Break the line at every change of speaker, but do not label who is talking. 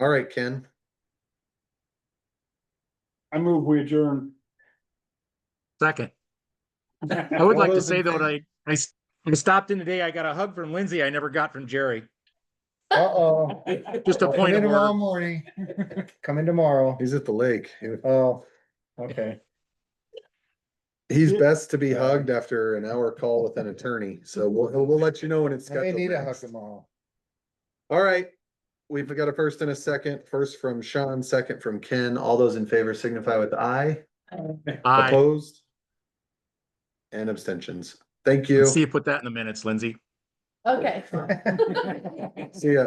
All right, Ken.
I move we adjourn.
Second, I would
All
like to
those in
say though,
favor?
that I, I s- I stopped in today. I got a hug from Lindsay. I never got from Jerry.
Uh-oh.
Just a
Come
point
in
of
tomorrow
order.
morning. Come in tomorrow.
He's at the lake. He-
Oh, okay.
He's
Yeah.
best to be hugged after an hour call with an attorney, so we'll, he'll- we'll let you know when it's
I may
scheduled.
need a hug
next.
tomorrow.
All right, we've got a first and a second. First from Sean, second from Ken. All those in favor signify with aye.
I
Opposed? And abstentions. Thank you.
see you put that in the minutes, Lindsay.
Okay.
See ya.